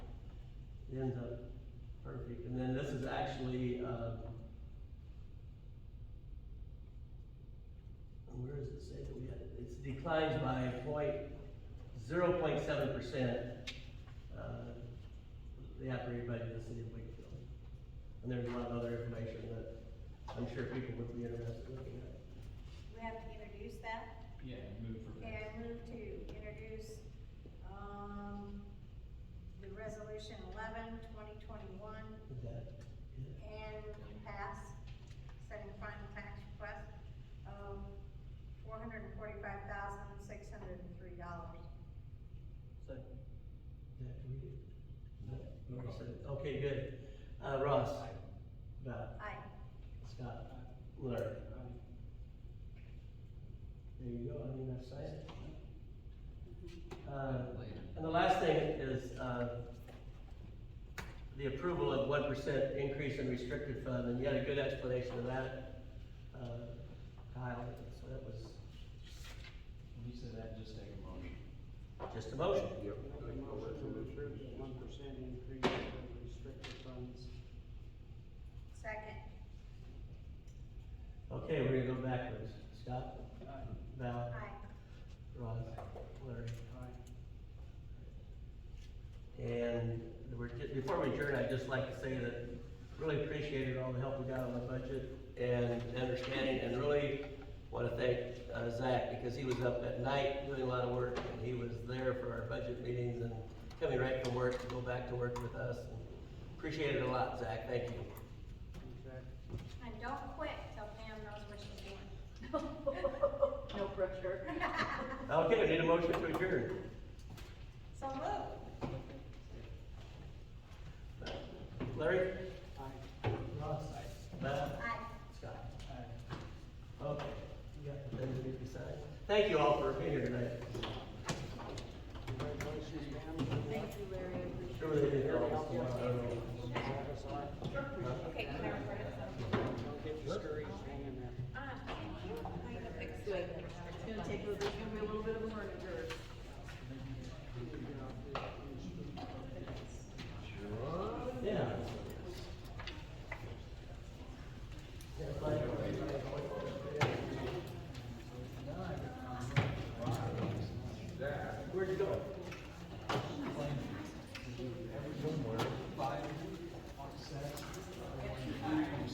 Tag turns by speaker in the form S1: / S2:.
S1: ends up perfect, and then this is actually, uh, where does it say that we had, it? it's declined by point, zero point seven percent, uh, the operating budget of the city of Wakefield. And there's a lot of other information that I'm sure people would be interested in looking at.
S2: We have to introduce that.
S3: Yeah, move for
S2: Okay, I move to introduce, um, the resolution eleven, twenty twenty-one,
S1: Is that it?
S2: and pass, setting final tax request of four hundred and forty-five thousand, six hundred and three dollars.
S1: Is that we did? No, we already said it. Okay, good. Uh, Ross? Val?
S2: Aye.
S1: Scott? Larry? There you go, I mean, I've signed it. Uh, And the last thing is, uh, the approval of one percent increase in restricted fund, and you had a good explanation of that, uh, Kyle, so that was
S3: When you say that, just take a motion.
S1: just a motion.
S4: Yep.
S5: Make a motion to approve the one percent increase of restricted funds.
S2: Second.
S1: Okay, we're gonna go backwards. Scott? Val?
S2: Aye.
S1: Ross? Larry?
S5: Aye.
S1: And we're, ju- before we adjourn, I'd just like to say that really appreciated all the help we got on the budget and understanding, and really want to thank uh, Zach, because he was up at night doing a lot of work, and he was there for our budget meetings and coming right from work to go back to work with us. Appreciate it a lot, Zach, thank you.
S5: Okay.
S2: And don't quit till Pam knows what she's doing.
S6: No pressure.
S1: Okay, we need a motion to adjourn.
S2: So move.
S1: Larry?
S5: Aye.
S1: Ross. Matt?
S2: Aye.
S1: Scott? Okay, you got the thing to do beside. Thank you all for being here tonight.
S5: Congratulations, ma'am. Good
S6: Thank
S5: luck.
S6: you, Larry. I appreciate it.
S1: Sure they did.
S5: Really help you out. Have us on.
S2: Okay, can I record it?
S5: Don't get discouraged hanging there.
S2: Ah, thank you. I'm gonna fix
S6: It's like- it's gonna take, a- there's gonna be a little bit of a learning curve.
S5: You can get off this.